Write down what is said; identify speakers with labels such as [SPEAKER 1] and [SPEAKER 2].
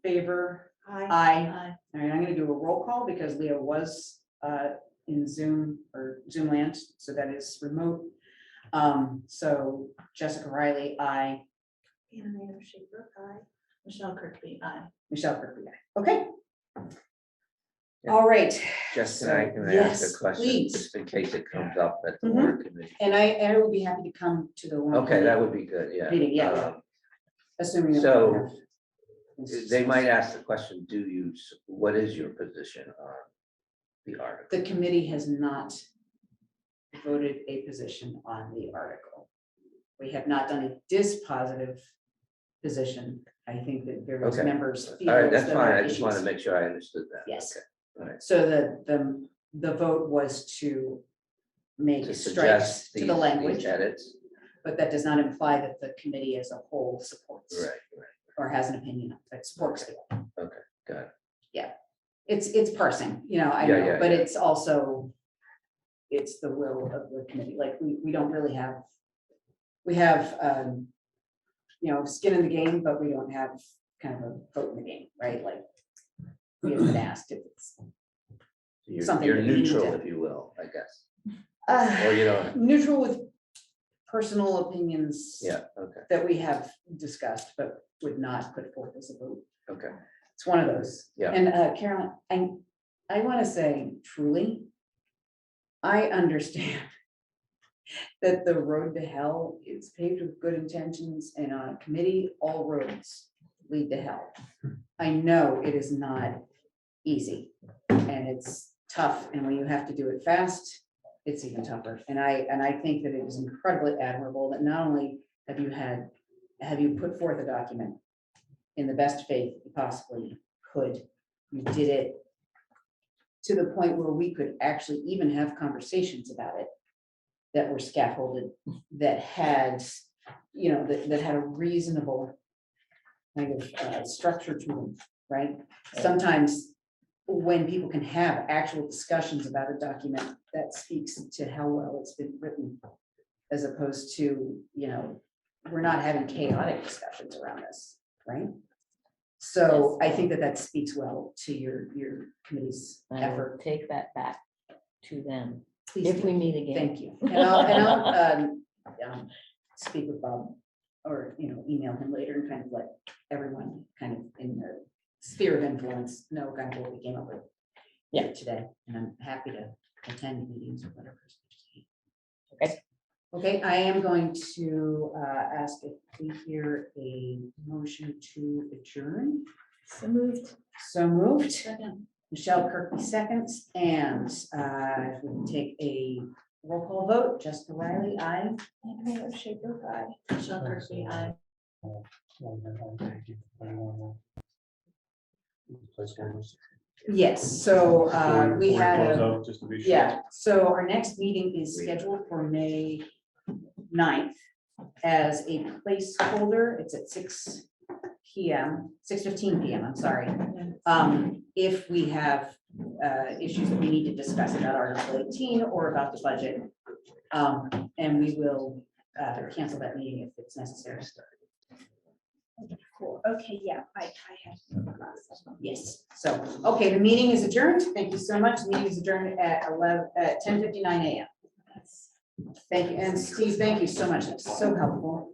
[SPEAKER 1] favor?
[SPEAKER 2] Aye.
[SPEAKER 1] Aye. All right, I'm gonna do a roll call because Leah was uh in Zoom or Zoom land, so that is remote. Um, so Jessica Riley, I.
[SPEAKER 2] Anna Mayor Schaefer, aye. Michelle Kirkby, aye.
[SPEAKER 1] Michelle Kirkby, aye. okay. All right,
[SPEAKER 3] Just I
[SPEAKER 1] So,
[SPEAKER 3] can I ask
[SPEAKER 1] yes,
[SPEAKER 3] a question,
[SPEAKER 1] please.
[SPEAKER 3] just in case it comes up at the
[SPEAKER 1] Mhm.
[SPEAKER 3] warrant committee.
[SPEAKER 1] and I, I will be happy to come to the one.
[SPEAKER 3] Okay, that would be good, yeah.
[SPEAKER 1] Meeting, yeah.
[SPEAKER 3] Um,
[SPEAKER 1] Assuming. that-
[SPEAKER 3] so, They might ask the question, do you, s- what is your position on the article?
[SPEAKER 1] The committee has not voted a position on the article. We have not done a dispositive position. I think that various
[SPEAKER 3] Okay.
[SPEAKER 1] members. feel
[SPEAKER 3] All right,
[SPEAKER 1] as
[SPEAKER 3] that's
[SPEAKER 1] though
[SPEAKER 3] fine,
[SPEAKER 1] there are
[SPEAKER 3] I just want to
[SPEAKER 1] issues.
[SPEAKER 3] make sure I understood that.
[SPEAKER 1] Yes.
[SPEAKER 3] Okay, All right,
[SPEAKER 1] So the, the, the vote was to make
[SPEAKER 3] to
[SPEAKER 1] strikes
[SPEAKER 3] suggest
[SPEAKER 1] to
[SPEAKER 3] these
[SPEAKER 1] the
[SPEAKER 3] these
[SPEAKER 1] language,
[SPEAKER 3] edits,
[SPEAKER 1] but that does not imply that the committee as a whole supports
[SPEAKER 3] right, right,
[SPEAKER 1] or has an opinion that supports it.
[SPEAKER 3] got it,
[SPEAKER 1] It's, it's parsing, you know, I
[SPEAKER 3] Yeah,
[SPEAKER 1] know,
[SPEAKER 3] yeah,
[SPEAKER 1] but
[SPEAKER 3] yeah.
[SPEAKER 1] it's also, it's the will of the committee, like, we, we don't really have, we have, um, you know, skin in the game, but we don't have kind of a vote in the game, right, like, we haven't been asked if it's.
[SPEAKER 3] you're,
[SPEAKER 1] Something
[SPEAKER 3] you're
[SPEAKER 1] that you need to-
[SPEAKER 3] neutral, if you will, I guess,
[SPEAKER 1] uh,
[SPEAKER 3] or you don't,
[SPEAKER 1] neutral with personal opinions.
[SPEAKER 3] yeah, okay,
[SPEAKER 1] That we have discussed, but would not put forth as a vote.
[SPEAKER 3] okay,
[SPEAKER 1] It's one of those.
[SPEAKER 3] Yeah.
[SPEAKER 1] And uh, Carolyn, I, I want to say truly, I understand that the road to hell is paved with good intentions and on a committee, all roads lead to hell. I know it is not easy and it's tough. And when you have to do it fast, it's even tougher. And I, and I think that it is incredibly admirable that not only have you had, have you put forth a document in the best faith you possibly could. You did it to the point where we could actually even have conversations about it that were scaffolded, that had, you know, that, that had a reasonable kind of uh, structure to them, right? Sometimes when people can have actual discussions about a document, that speaks to how well it's been written as opposed to, you know, we're not having chaotic discussions around this, right? So I think that that speaks well to your, your committee's
[SPEAKER 4] I will
[SPEAKER 1] effort.
[SPEAKER 4] take that back to them
[SPEAKER 1] Please
[SPEAKER 4] if
[SPEAKER 1] do.
[SPEAKER 4] we meet again.
[SPEAKER 1] Thank you. And I'll, and I'll, um, um, speak with Bob or, you know, email him later and kind of let everyone kind of in their sphere of influence know kind of what we came up with. Yeah, today, and I'm happy to attend meetings or whatever.
[SPEAKER 4] Okay.
[SPEAKER 1] Okay, I am going to, uh, ask if we hear a motion to adjourn.
[SPEAKER 4] So moved.
[SPEAKER 1] So moved.
[SPEAKER 2] Second.
[SPEAKER 1] Michelle Kirkby seconds, and uh, if we can take a roll call vote, Jessica Riley, aye.
[SPEAKER 2] Anna Mayor Schaefer, aye. Michelle Kirkby, aye.
[SPEAKER 1] Yes, so uh, we
[SPEAKER 5] Before it
[SPEAKER 1] had
[SPEAKER 5] goes
[SPEAKER 1] a,
[SPEAKER 5] out, Just to be sure.
[SPEAKER 1] yeah, so our next meeting is scheduled for May 9th as a placeholder. It's at six PM, six fifteen PM, I'm sorry. Um, If we have uh, issues that we need to discuss about Article eighteen or about the budget. um, And we will uh, cancel that meeting if it's necessary.
[SPEAKER 2] Cool, okay, yeah, I, I have.
[SPEAKER 1] Yes, so, okay, the meeting is adjourned. Thank you so much. The Meeting is adjourned at eleven, at ten fifty-nine AM. Thank you, and Steve, thank you so much. That's so helpful.